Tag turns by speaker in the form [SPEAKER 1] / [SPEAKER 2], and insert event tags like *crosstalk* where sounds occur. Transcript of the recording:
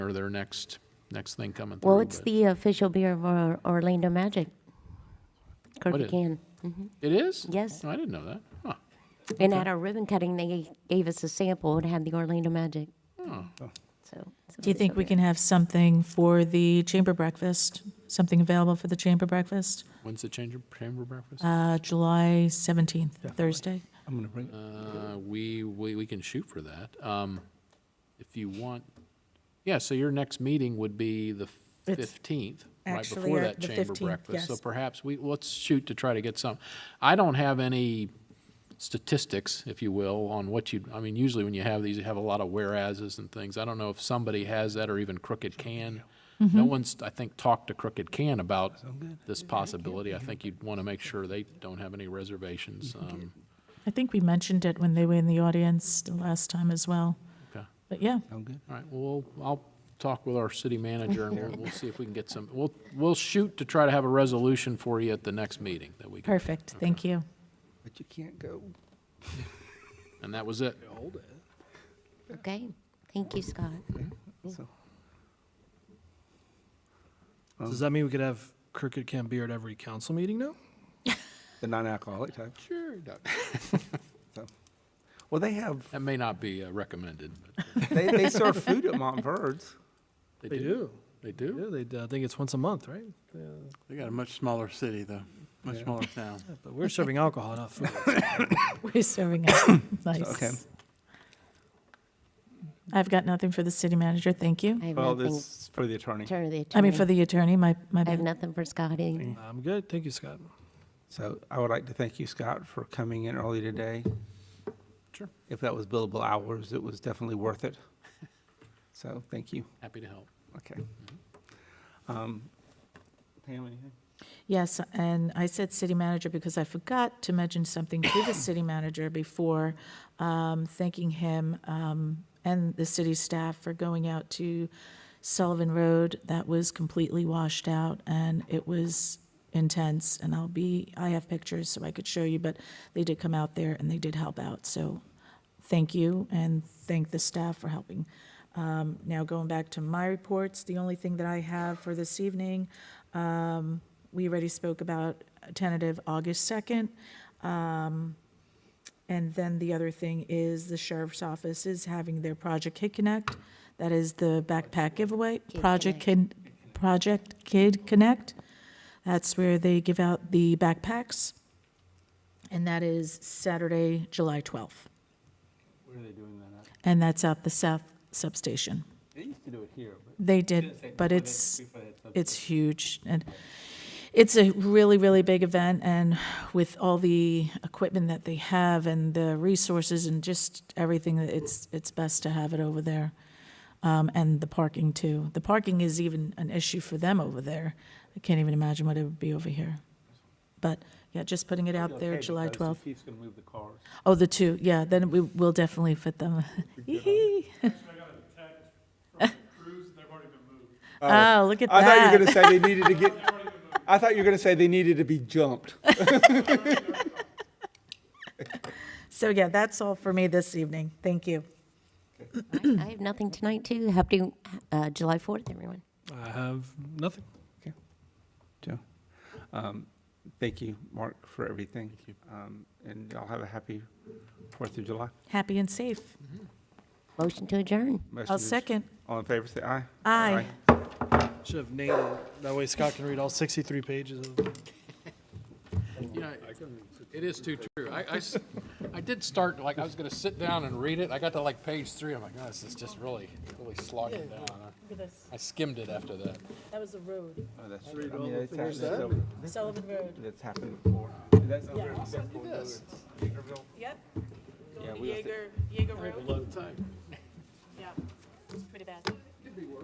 [SPEAKER 1] or their next, next thing coming through.
[SPEAKER 2] Well, it's
[SPEAKER 1] but-
[SPEAKER 2] the official beer of Or- Orlando Magic.
[SPEAKER 1] What
[SPEAKER 2] Kirby
[SPEAKER 1] is-
[SPEAKER 2] can.
[SPEAKER 1] It is?
[SPEAKER 2] Yes.
[SPEAKER 1] Oh, I didn't know that. Huh.
[SPEAKER 2] And at our ribbon cutting, they gave us a sample and had the Orlando Magic. So. it's
[SPEAKER 3] Oh. Do you think
[SPEAKER 2] official
[SPEAKER 3] we
[SPEAKER 2] beer.
[SPEAKER 3] can have something for the chamber breakfast, something available for the chamber breakfast?
[SPEAKER 1] When's the change of chamber breakfast?
[SPEAKER 3] Uh, July 17th, Thursday.
[SPEAKER 4] I'm gonna bring,
[SPEAKER 1] Uh, we, we, we can shoot for that. Um, if you want, yeah, so your next meeting would be the
[SPEAKER 3] It's
[SPEAKER 1] fifteenth, right
[SPEAKER 3] actually
[SPEAKER 1] before
[SPEAKER 3] our-
[SPEAKER 1] that
[SPEAKER 3] the
[SPEAKER 1] chamber
[SPEAKER 3] 15th,
[SPEAKER 1] breakfast. So
[SPEAKER 3] yes.
[SPEAKER 1] perhaps we, let's shoot to try to get some. I don't have any statistics, if you will, on what you, I mean, usually when you have these, you have a lot of whereases and things. I don't know if somebody has that or even Crooked Can.
[SPEAKER 3] Mm-hmm.
[SPEAKER 1] No one's, I think, talked to Crooked Can about this possibility. I think you'd want to make sure they don't have any reservations. Um,
[SPEAKER 3] I think we mentioned it when they were in the audience the last time as well.
[SPEAKER 1] okay.
[SPEAKER 3] But yeah,
[SPEAKER 4] sound good?
[SPEAKER 1] All right, well, we'll- I'll talk with our city manager and we'll, we'll see if we can get some, we'll, we'll shoot to try to have a resolution for you at the next meeting that we can.
[SPEAKER 3] perfect. Thank you.
[SPEAKER 4] But you can't go.
[SPEAKER 1] And that was it.
[SPEAKER 2] Okay. Thank you, Scott.
[SPEAKER 4] So,
[SPEAKER 5] Does that mean we could have Crooked Can beer at every council meeting now?
[SPEAKER 4] the non-alcoholic type? Sure. *laughs* So, Well, they have,
[SPEAKER 1] That may not be uh, recommended, but
[SPEAKER 4] they, they serve food at Montverde's.
[SPEAKER 1] they do. They do?
[SPEAKER 5] Yeah, they, I think it's once a month, right? Yeah,
[SPEAKER 6] They got a much smaller city, though, much
[SPEAKER 1] *laughs*
[SPEAKER 6] smaller town.
[SPEAKER 5] but we're serving alcohol, not food. *laughs*
[SPEAKER 3] We're serving up. Nice. I've got nothing for the city manager. Thank you.
[SPEAKER 2] I have
[SPEAKER 4] Well,
[SPEAKER 2] nothing.
[SPEAKER 4] this is for the attorney.
[SPEAKER 2] Turn to the
[SPEAKER 3] I mean, for
[SPEAKER 2] attorney.
[SPEAKER 3] the attorney, my, my
[SPEAKER 2] I have
[SPEAKER 3] bad.
[SPEAKER 2] nothing for Scott either.
[SPEAKER 5] uh, I'm good. Thank you, Scott.
[SPEAKER 4] So I would like to thank you, Scott, for coming in early today. Sure. If that was billable hours, it was definitely worth it. So, thank you.
[SPEAKER 1] Happy to help.
[SPEAKER 4] Okay. Um, Pam, anything?
[SPEAKER 3] Yes, and I said city manager because I forgot to mention something to the city manager before, um, thanking him um, and the city staff for going out to Sullivan Road. That was completely washed out, and it was intense, and I'll be, I have pictures so I could show you, but they did come out there and they did help out, so thank you, and thank the staff for helping. Um, Now, going back to my reports, the only thing that I have for this evening we already spoke about tentative August 2nd. Um, And then the other thing is the sheriff's office is having their Project Kid Connect. That is the backpack giveaway, Project Kid, Project Kid Connect. That's where they give out the backpacks. And that is Saturday, July 12th.
[SPEAKER 4] Where are they doing that at?
[SPEAKER 3] And that's at the South Substation.
[SPEAKER 4] They used to do it here, but.
[SPEAKER 3] They did, but it's, it's huge. And it's a really, really big event, and with all the equipment that they have and the resources and just everything, it's, it's best to have it over there. Um, and the parking too. The parking is even an issue for them over there. I can't even imagine what it would be over here. But, yeah, just putting it out there, July twelfth.
[SPEAKER 4] Chief's gonna move the cars.
[SPEAKER 3] Oh, the two, yeah, then we will definitely fit them. *laughs*
[SPEAKER 7] I got a text from the crews, they've already been moved.
[SPEAKER 3] Oh, look at
[SPEAKER 4] I thought you were
[SPEAKER 3] that. *laughs*
[SPEAKER 4] gonna say they needed to get. I thought you were gonna say they needed to be jumped.
[SPEAKER 3] So, yeah, that's all for me this evening. Thank you.
[SPEAKER 2] I have nothing tonight, too. Happy uh, July 4th, everyone.
[SPEAKER 5] I have nothing.
[SPEAKER 4] Joe, um, thank you, Mark, for everything. Thank you. Um, and y'all have a happy Fourth of July.
[SPEAKER 3] Happy and safe.
[SPEAKER 2] Motion to adjourn.
[SPEAKER 4] Motion
[SPEAKER 3] I'll
[SPEAKER 4] to-
[SPEAKER 3] second.
[SPEAKER 4] All in favor, say aye.
[SPEAKER 3] Aye.
[SPEAKER 5] Should have named it. That way Scott can read all 63 pages of
[SPEAKER 1] You know, it is too true. I, I s- I did start, like, I was gonna sit down and read it. I got to like page three. I'm like, oh, this is just really, really slogging down. I- I skimmed it after that.
[SPEAKER 3] That was the road,
[SPEAKER 4] Oh, that's right. I mean, it's happened- that's over-
[SPEAKER 3] Sullivan Road.
[SPEAKER 4] That's happened before. That's over-
[SPEAKER 3] Yep.
[SPEAKER 4] Yeah,
[SPEAKER 3] Going to
[SPEAKER 4] we have to-
[SPEAKER 3] Jaeger, Jaeger Road. Yeah, it's pretty bad.